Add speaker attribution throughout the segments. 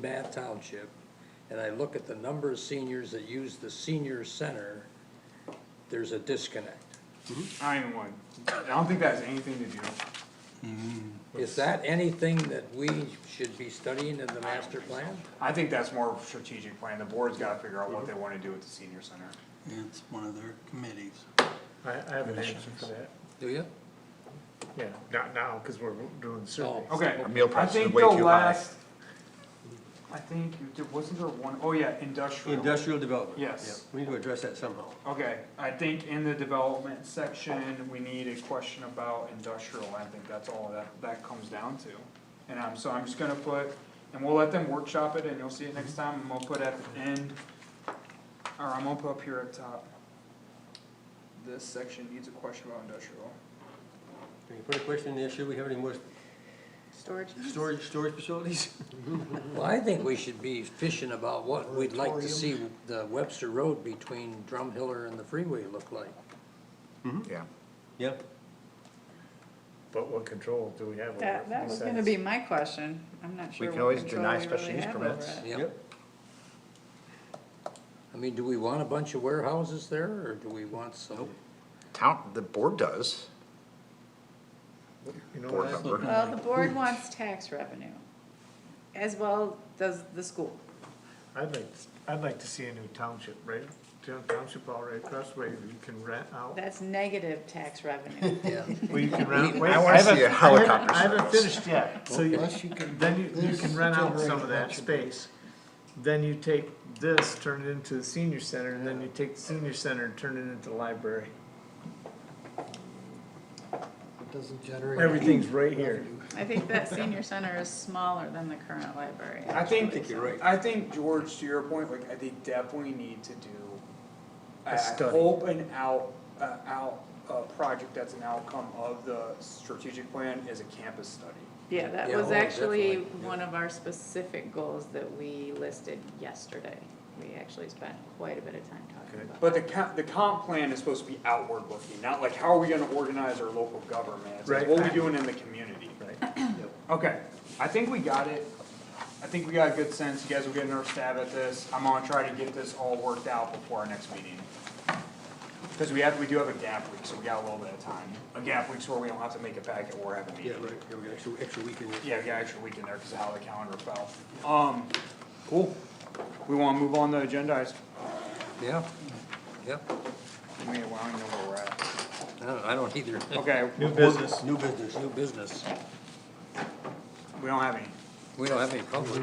Speaker 1: Bath Township, and I look at the number of seniors that use the senior center, there's a disconnect.
Speaker 2: I ain't one. I don't think that has anything to do.
Speaker 1: Is that anything that we should be studying in the master plan?
Speaker 2: I think that's more of a strategic plan. The board's gotta figure out what they wanna do with the senior center.
Speaker 3: It's one of their committees.
Speaker 4: I, I have an answer for that,
Speaker 1: Do you?
Speaker 4: yeah, not now, cause we're doing the survey.
Speaker 1: Oh.
Speaker 2: Okay.
Speaker 5: Our meal
Speaker 2: I
Speaker 5: prices are
Speaker 2: think
Speaker 5: way
Speaker 2: the
Speaker 5: too high.
Speaker 2: last, I think, there- wasn't there one, oh yeah, industrial.
Speaker 6: Industrial development.
Speaker 2: Yes.
Speaker 6: Yeah, We need to address that somehow.
Speaker 2: Okay, I think in the development section, we need a question about industrial, I think that's all that, that comes down to. And I'm, so I'm just gonna put, and we'll let them workshop it, and you'll see it next time, and we'll put at the end, or I'm gonna put up here at top. This section needs a question about industrial.
Speaker 6: Can you put a question in there, should we have any more
Speaker 7: Storage.
Speaker 6: storage, storage facilities?
Speaker 1: Well, I think we should be fishing about what we'd like to see the Webster Road between Drumhiller and the freeway look like.
Speaker 5: Yeah.
Speaker 6: Yeah,
Speaker 4: But what control do we have over?
Speaker 7: That, that was gonna be my question, I'm not
Speaker 5: We
Speaker 7: sure
Speaker 5: can
Speaker 7: what
Speaker 5: always
Speaker 7: control
Speaker 5: deny
Speaker 7: we
Speaker 5: special
Speaker 7: really
Speaker 5: use
Speaker 7: have over
Speaker 5: permits.
Speaker 7: it.
Speaker 1: Yep. I mean, do we want a bunch of warehouses there, or do we want some?
Speaker 5: Town, the board does.
Speaker 4: You know,
Speaker 5: Board
Speaker 4: that's-
Speaker 5: member.
Speaker 7: Well, the board wants tax revenue, as well does the school.
Speaker 4: I'd like, I'd like to see a new township, right, Town- township all right across where you can rent out.
Speaker 7: That's negative tax revenue.
Speaker 1: Yeah.
Speaker 4: Well, you can rent, wait,
Speaker 5: I wanna
Speaker 4: haven't-
Speaker 5: see a
Speaker 4: I haven't-
Speaker 5: helicopter
Speaker 4: I haven't
Speaker 5: service.
Speaker 4: finished yet, so you, then you, you can rent out some of that space. Then you take this, turn it into the senior center, and then you take the senior center and turn it into the library. Everything's right here.
Speaker 7: I think that senior center is smaller than the current library.
Speaker 2: I think,
Speaker 1: think you're right.
Speaker 2: I think, George, to your point, like, I think definitely need to do
Speaker 4: A
Speaker 2: a
Speaker 4: study.
Speaker 2: open out, uh, out, uh, project that's an outcome of the strategic plan is a campus study.
Speaker 7: Yeah, that
Speaker 1: Yeah,
Speaker 7: was
Speaker 1: oh,
Speaker 7: actually
Speaker 1: definitely, yeah.
Speaker 7: one of our specific goals that we listed yesterday. We actually spent quite a bit of time talking about.
Speaker 2: But the comp, the comp plan is supposed to be outward looking, not like, how are we gonna organize our local government? It's like,
Speaker 4: Right.
Speaker 2: what are we doing in the community?
Speaker 4: Right.
Speaker 2: Okay, I think we got it. I think we got a good sense. You guys will get another stab at this. I'm gonna try to get this all worked out before our next meeting. Cause we have, we do have a gap week, so we got a little bit of time. A gap week's where we don't have to make a packet or have a
Speaker 6: yeah,
Speaker 2: meeting.
Speaker 6: right, yeah, we got extra, extra week in there.
Speaker 2: Yeah, we got an extra week in there because of how the calendar fell. Um, cool. We wanna move on to agenda items.
Speaker 1: Yeah, yep.
Speaker 2: I mean, I don't even know where we're at.
Speaker 1: I don't, I don't either.
Speaker 2: Okay,
Speaker 4: New business.
Speaker 6: New business,
Speaker 1: New business.
Speaker 2: we don't have any.
Speaker 1: We don't have any public,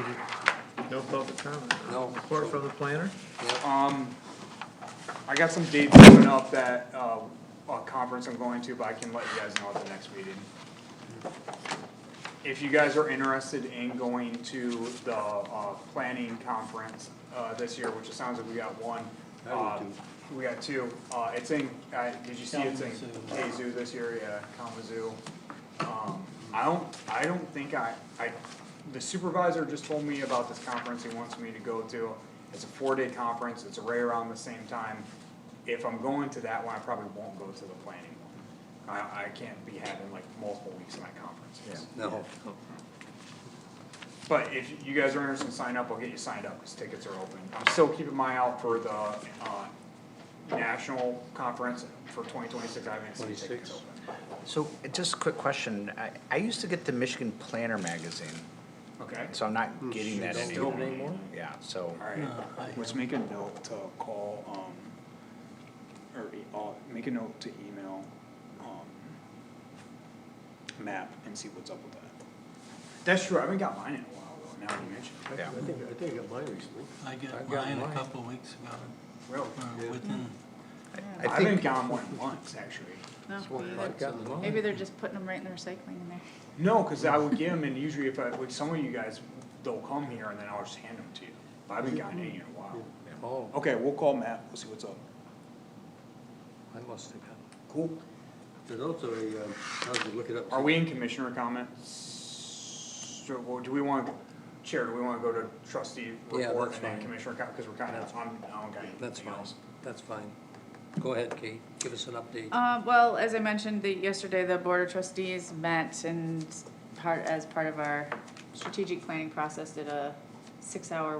Speaker 4: No public comment.
Speaker 1: No.
Speaker 4: Report from the planner?
Speaker 2: Um, I got some dates coming up that, uh, a conference I'm going to, but I can let you guys know at the next meeting. If you guys are interested in going to the, uh, planning conference, uh, this year, which it sounds like we got one. uh, We got two, uh, it's in, uh, did you see it's in uh, Kazoo this year, yeah, Kalamazoo. Um, I don't, I don't think I, I, the supervisor just told me about this conference he wants me to go to. It's a four-day conference, it's right around the same time. If I'm going to that one, I probably won't go to the planning one. I, I can't be having like multiple weeks of my conferences.
Speaker 1: no.
Speaker 2: But if you guys are interested in signing up, I'll get you signed up, cause tickets are open. I'm still keeping my eye out for the, uh, national conference for twenty twenty-six, I haven't seen tickets
Speaker 1: 26.
Speaker 2: open.
Speaker 5: So just a quick question. I, I used to get the Michigan Planner magazine,
Speaker 2: Okay,
Speaker 5: so I'm not getting that
Speaker 1: Don't
Speaker 5: anymore.
Speaker 1: do it anymore?
Speaker 5: Yeah, so.
Speaker 2: alright, let's make a note to call, um, or, e- uh, make a note to email, um, Map and see what's up with that. That's true, I haven't got mine in a while, though, now you mention it.
Speaker 5: Yeah.
Speaker 6: I think, I think I got mine recently.
Speaker 3: I
Speaker 1: I
Speaker 3: got
Speaker 1: got
Speaker 3: mine a
Speaker 1: mine.
Speaker 3: couple weeks ago,
Speaker 2: Really?
Speaker 3: or within,
Speaker 2: I
Speaker 5: I
Speaker 2: haven't
Speaker 5: think,
Speaker 2: gotten one in months, actually.
Speaker 7: No, me either.
Speaker 1: I've
Speaker 5: uh,
Speaker 1: gotten mine.
Speaker 7: Maybe they're just putting them right in the recycling in there.
Speaker 2: No, cause I would get them, and usually if I, with some of you guys, they'll come here and then I'll just hand them to you, but I haven't gotten any in a while.
Speaker 1: Oh,
Speaker 2: Okay, we'll call Matt, we'll see what's up.
Speaker 1: I must have got,
Speaker 2: Cool.
Speaker 6: There's also a, um, I was gonna look it up.
Speaker 2: Are we in commissioner comments? So, well, do we want, Chair, do we want to go to trustee
Speaker 1: Yeah,
Speaker 2: report
Speaker 1: that's
Speaker 2: and then
Speaker 1: fine.
Speaker 2: commissioner com, because we're kind of, I'm, I don't got anything
Speaker 1: that's fine,
Speaker 2: else.
Speaker 1: that's fine. Go ahead, Kate, give us an update.
Speaker 7: Uh, well, as I mentioned, the, yesterday, the Board of Trustees met and part, as part of our strategic planning process, did a six-hour